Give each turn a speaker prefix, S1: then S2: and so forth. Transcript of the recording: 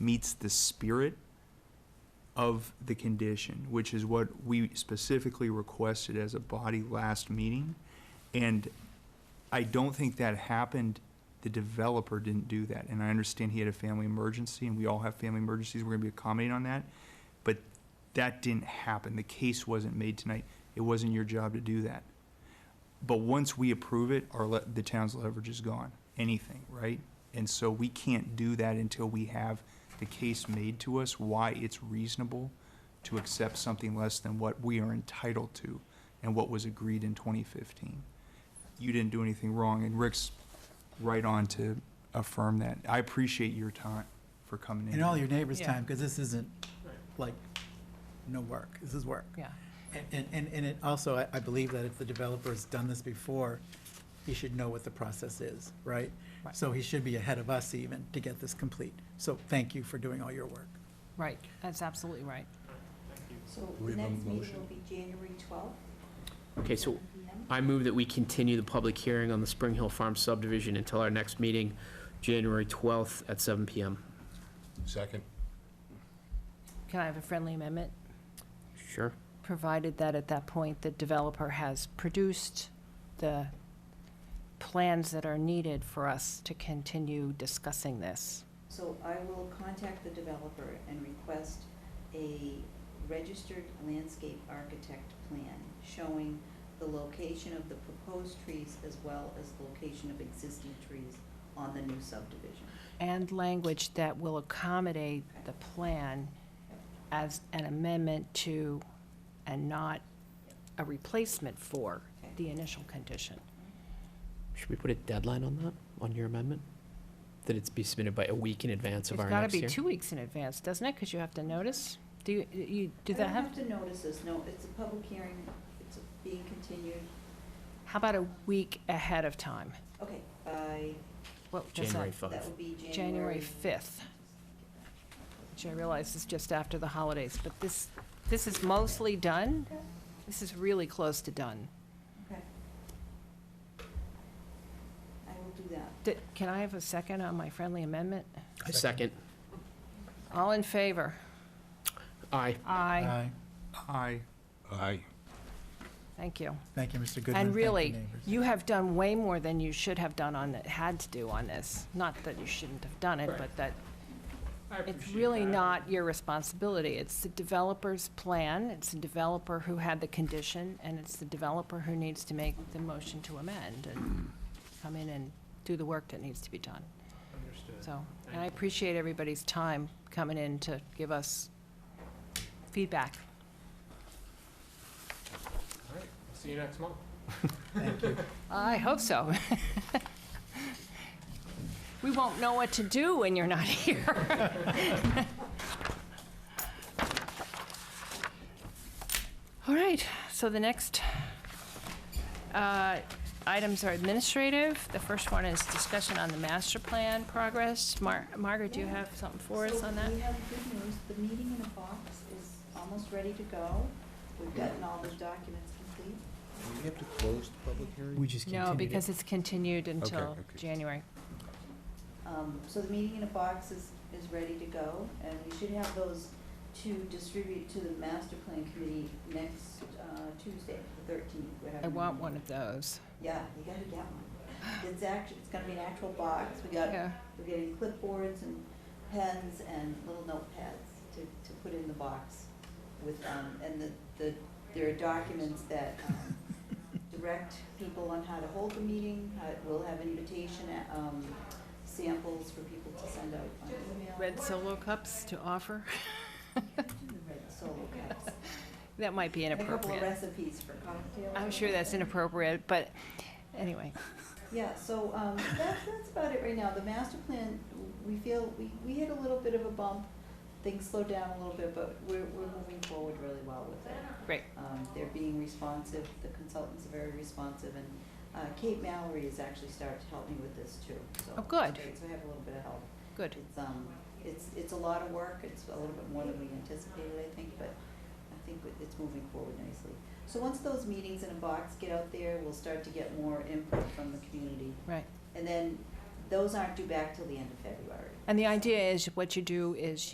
S1: meets the spirit of the condition, which is what we specifically requested as a body last meeting. And I don't think that happened. The developer didn't do that. And I understand he had a family emergency, and we all have family emergencies. We're going to be accommodating on that. But that didn't happen. The case wasn't made tonight. It wasn't your job to do that. But once we approve it, our, le- the town's leverage is gone, anything, right? And so we can't do that until we have the case made to us, why it's reasonable to accept something less than what we are entitled to and what was agreed in 2015. You didn't do anything wrong, and Rick's right on to affirm that. I appreciate your time for coming in.
S2: And all your neighbors'
S3: Yeah.
S2: time, because this isn't like, no work, this is work.
S3: Yeah,
S2: And- And, and, and it also, I, I believe that if the developer's done this before, he should know what the process is, right?
S3: Right.
S2: So he should be ahead of us even to get this complete. So thank you for doing all your work.
S3: right, that's absolutely right.
S4: So
S5: We
S4: the
S5: have a
S4: next meeting
S5: motion.
S4: will be January twelfth,
S6: Okay, so
S4: PM.
S6: I move that we continue the public hearing on the Spring Hill Farm subdivision until our next meeting, January 12th at 7 PM.
S5: Second.
S3: Can I have a friendly amendment?
S6: Sure?
S3: Provided that at that point, the developer has produced the plans that are needed for us to continue discussing this.
S4: So I will contact the developer and request a registered landscape architect plan showing the location of the proposed trees as well as location of existing trees on the new subdivision.
S3: And language that will accommodate the plan as an amendment to, and not a replacement for, the initial condition.
S6: Should we put a deadline on that, on your amendment? That it's be submitted by a week in advance
S3: It's
S6: of our
S3: gotta
S6: next
S3: be
S6: hearing?
S3: two weeks in advance, doesn't it? Because you have to notice. Do you, you, do that
S4: I
S3: have,
S4: don't have to notice this, no, it's a public hearing, it's being continued.
S3: how about a week ahead of time?
S4: Okay, by,
S3: What does
S6: January
S3: that,
S6: 5th.
S4: that would be January.
S3: January 5th, which I realize is just after the holidays, but this, this is mostly done. This is really close to done.
S4: Okay. I will do that.
S3: Di- Can I have a second on my friendly amendment?
S6: Second.
S3: All in favor?
S6: Aye.
S3: Aye.
S1: I,
S5: Aye.
S3: Thank you.
S2: Thank you, Mr. Goodman.
S3: And
S2: Thank you,
S3: really,
S2: neighbors.
S3: you have done way more than you should have done on, it- had to do on this. Not that you shouldn't have done it,
S6: Right.
S3: but that It's really not your responsibility. It's the developer's plan, it's the developer who had the condition, and it's the developer who needs to make the motion to amend and come in and do the work that needs to be done. So, and I appreciate everybody's time coming in to give us feedback.
S6: See you next month.
S2: Thank you.
S3: I hope so. We won't know what to do when you're not here. All right, so the next uh, items are administrative. The first one is discussion on the master plan progress. Mar- Margaret, do you have something for us
S4: So
S3: on that?
S4: we have good news, the meeting in a box is almost ready to go. We've gotten all the documents complete.
S5: Do we have to close the public hearing?
S2: We just continued
S3: No,
S2: it.
S3: because it's continued until
S5: okay.
S3: January.
S4: Um, so the meeting in a box is, is ready to go, and we should have those to distribute to the master plan committee next, uh, Tuesday, the thirteenth.
S3: I want one of those.
S4: Yeah, you gotta get one. It's actually, it's gonna be an actual box, we got,
S3: Yeah.
S4: we're getting clipboards and pens and little notepads to, to put in the box with, um, and the, the, there are documents that, um, direct people on how to hold the meeting, how, we'll have invitation, um, samples for people to send out on email.
S3: Red Solo cups to offer?
S4: Red solo cups.
S3: That might be
S4: And a couple of
S3: inappropriate.
S4: recipes for cocktails.
S3: I'm sure that's inappropriate, but anyway.
S4: Yeah, so um, that's, that's about it right now. The master plan, we feel, we, we hit a little bit of a bump. Things slowed down a little bit, but we're, we're moving forward really well with it.
S3: Great.
S4: Um, They're being responsive, the consultants are very responsive, and uh, Kate Mallory has actually started to help me with this too. So
S3: Oh, good.
S4: it's great. So I have a little bit of help.
S3: Good.
S4: It's, um, it's, it's a lot of work, it's a little bit more than we anticipated, I think, but I think it- it's moving forward nicely. So once those meetings in a box get out there, we'll start to get more input from the community.
S3: Right.
S4: And then those aren't due back till the end of February.
S3: And the idea is, what you do is